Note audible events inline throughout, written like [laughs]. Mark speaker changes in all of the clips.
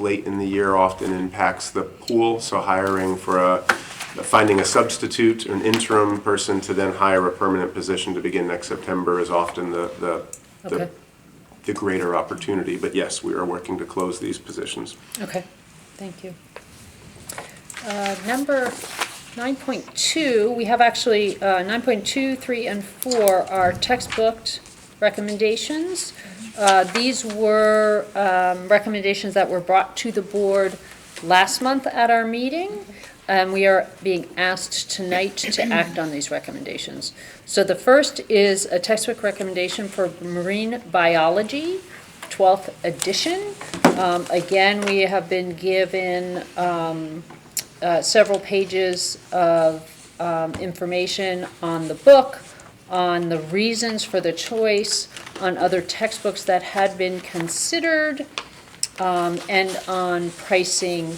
Speaker 1: late in the year often impacts the pool, so hiring for a, finding a substitute, an interim person to then hire a permanent position to begin next September is often the, the-
Speaker 2: Okay.
Speaker 1: the, the greater opportunity. But yes, we are working to close these positions.
Speaker 2: Okay, thank you. Uh, Number 9.2, we have actually, uh, 9.2, 3, and 4 are textbook recommendations. Uh, These were um, recommendations that were brought to the board last month at our meeting, and we are being asked tonight to act on these recommendations. So the first is a textbook recommendation for marine biology, 12th edition. Um, Again, we have been given um, uh, several pages of um, information on the book, on the reasons for the choice, on other textbooks that had been considered, um, and on pricing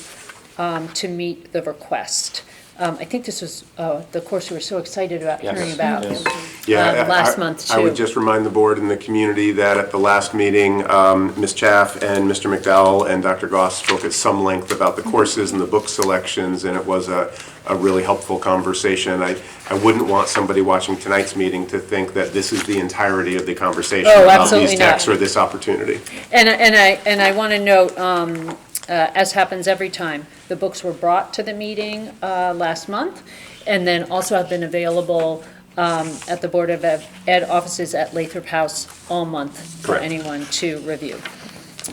Speaker 2: um, to meet the request. Um, I think this was uh, the course we were so excited about hearing
Speaker 1: Yes.
Speaker 2: about.
Speaker 1: Yeah,
Speaker 2: um, Last
Speaker 1: I-
Speaker 2: month,
Speaker 1: I would
Speaker 2: too.
Speaker 1: just remind the board and the community that at the last meeting, um, Ms. Chaff and Mr. McDowell and Dr. Goss spoke at some length about the
Speaker 2: Mm-hmm.
Speaker 1: courses and the book selections, and it was a, a really helpful conversation. I, I wouldn't want somebody watching tonight's meeting to think that this is the entirety of the conversation
Speaker 2: Oh,
Speaker 1: about
Speaker 2: absolutely
Speaker 1: these
Speaker 2: not.
Speaker 1: texts or this opportunity.
Speaker 2: And, I- and I, and I want to note, um, uh, as happens every time, the books were brought to the meeting uh, last month, and then also have been available um, at the Board of Ed Ed offices at Lathrop House all month for
Speaker 1: Correct.
Speaker 2: anyone to review.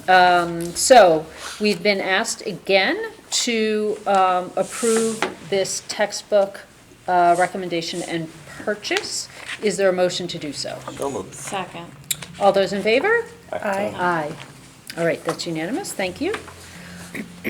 Speaker 2: Um, So, we've been asked again to um, approve this textbook uh, recommendation and purchase. Is there a motion to do so?
Speaker 3: So moved.
Speaker 4: Second.
Speaker 2: All those in favor?
Speaker 3: Aye.
Speaker 2: Aye. All right, that's unanimous, thank you.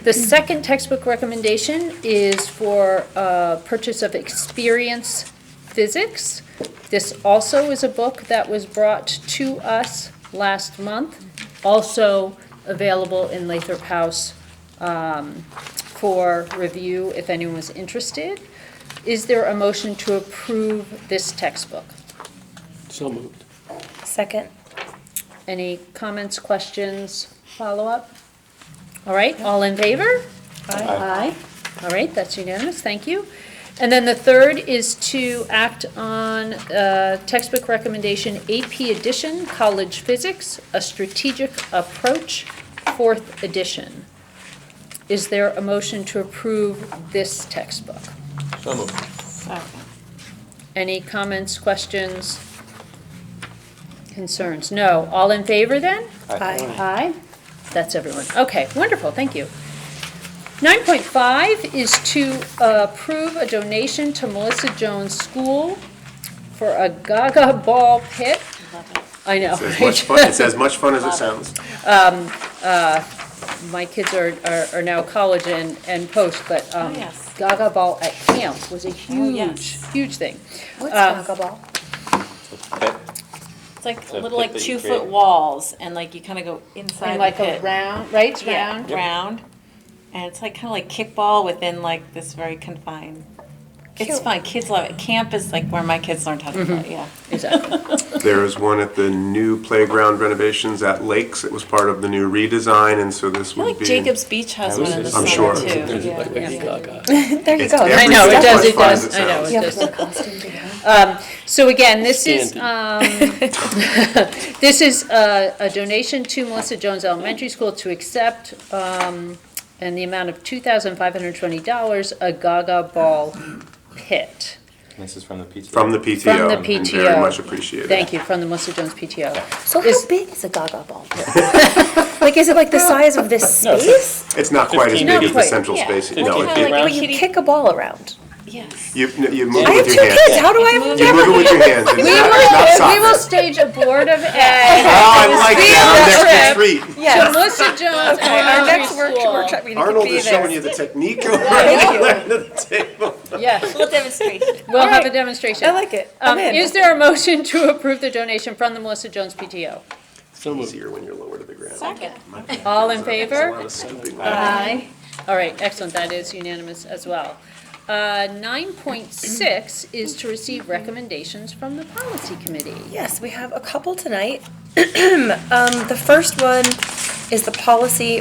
Speaker 2: The second textbook recommendation is for uh, purchase of Experience Physics. This also is a book that was brought to us last month, also available in Lathrop House um, for review if anyone was interested. Is there a motion to approve this textbook?
Speaker 3: So moved.
Speaker 4: Second.
Speaker 2: Any comments, questions, follow-up? All right, all in favor? Aye. All right, that's unanimous, thank you. And then the third is to act on uh, textbook recommendation AP Edition, College Physics, A Strategic Approach, Fourth Edition. Is there a motion to approve this textbook?
Speaker 3: So moved.
Speaker 4: Second.
Speaker 2: Any comments, questions, concerns? No. All in favor, then?
Speaker 3: Aye.
Speaker 2: Aye. That's everyone. Okay, wonderful, thank you. 9.5 is to approve a donation to Melissa Jones School for a Gaga Ball pit.
Speaker 4: Love it.
Speaker 2: I know.
Speaker 1: It's as much fun, it's as much fun as it sounds.
Speaker 2: [laughs] My kids are, are- are now college and, and post, but um,
Speaker 4: Oh, yes. Oh,
Speaker 2: Gaga Ball at camp was a huge,
Speaker 4: yes.
Speaker 2: huge thing.
Speaker 5: What's
Speaker 2: Uh,
Speaker 5: Gaga Ball?
Speaker 4: It's like
Speaker 3: So
Speaker 4: little
Speaker 3: pit
Speaker 4: like
Speaker 3: that you
Speaker 4: two
Speaker 3: create.
Speaker 4: foot walls and like you kind of go inside
Speaker 2: And
Speaker 4: the
Speaker 2: like a
Speaker 4: pit.
Speaker 2: round, right, It's
Speaker 4: Yeah,
Speaker 2: round?
Speaker 4: round. And it's like kind of like kickball within like this very confined. It's
Speaker 5: Cute.
Speaker 4: fun. Kids love it. Camp is like where my kids learned how to
Speaker 3: Mm-hmm.
Speaker 4: play. Yeah.
Speaker 2: Exactly.
Speaker 1: There is one at the new playground renovations at Lakes. It was part of the new redesign, and so this
Speaker 4: I feel
Speaker 1: would
Speaker 4: like
Speaker 1: be.
Speaker 4: Jacob's Beach has one in the
Speaker 1: I'm
Speaker 4: summer
Speaker 1: sure.
Speaker 4: too.
Speaker 3: There's [laughs]
Speaker 4: Yeah.
Speaker 3: like Lady Gaga.
Speaker 5: There you
Speaker 1: It's
Speaker 5: go.
Speaker 1: every
Speaker 2: I know, it
Speaker 1: step
Speaker 2: does,
Speaker 1: as
Speaker 2: it
Speaker 1: fun
Speaker 2: does,
Speaker 1: as it
Speaker 2: I know,
Speaker 1: sounds.
Speaker 2: it
Speaker 5: You
Speaker 2: does. Um,
Speaker 5: have to wear a costume to go.
Speaker 2: So again, this is,
Speaker 3: Standing.
Speaker 2: um, this is uh, a donation to Melissa Jones Elementary School to accept, um, in the amount of $2,520, a Gaga Ball pit.
Speaker 6: This is from the PTA.
Speaker 1: From the PTO.
Speaker 2: From the
Speaker 1: and
Speaker 2: PTO.
Speaker 1: Very much appreciated.
Speaker 2: Thank you, from the Melissa Jones PTO.
Speaker 5: So
Speaker 2: Is-
Speaker 5: how big is a Gaga Ball? [laughs] Like, is it like the size of this space?
Speaker 1: It's not quite as
Speaker 3: 15
Speaker 1: big
Speaker 3: feet.
Speaker 1: as the central
Speaker 4: Yeah.
Speaker 1: space.
Speaker 3: Fifteen
Speaker 1: No,
Speaker 3: feet.
Speaker 1: it-
Speaker 4: Kinda
Speaker 1: it-
Speaker 3: Like
Speaker 4: a
Speaker 3: around?
Speaker 5: But you
Speaker 4: kitty-
Speaker 5: kick a ball around.
Speaker 4: Yes.
Speaker 1: you, no, you move
Speaker 3: I
Speaker 5: I
Speaker 1: with
Speaker 5: have two
Speaker 1: your hands.
Speaker 5: kids, how do I?
Speaker 1: You move it with your hands. It's
Speaker 2: We
Speaker 1: not, it's not
Speaker 2: will, we
Speaker 1: soccer.
Speaker 2: will stage a Board
Speaker 5: [laughs]
Speaker 2: of
Speaker 1: Oh,
Speaker 2: Ed
Speaker 1: I like that. I'm next to
Speaker 2: that
Speaker 1: treat.
Speaker 2: to Melissa Jones Elementary School.
Speaker 5: meeting
Speaker 1: Arnold is showing you the technique over at the table.
Speaker 2: Yes,
Speaker 4: Little demonstration.
Speaker 2: we'll have a
Speaker 5: Alright,
Speaker 2: demonstration.
Speaker 5: I like it.
Speaker 2: Um,
Speaker 5: I'm in.
Speaker 2: Is there a motion to approve the donation from the Melissa Jones PTO?
Speaker 3: So moved.
Speaker 1: Easier when you're lower to the ground.
Speaker 4: Second.
Speaker 2: All in favor?
Speaker 1: A lot of stupid-
Speaker 2: Aye. All right, excellent, that is unanimous as well. Uh, Nine point six is to receive recommendations from the policy committee.
Speaker 5: [clears throat] Yes, we have a couple tonight. Um, the first one is the policy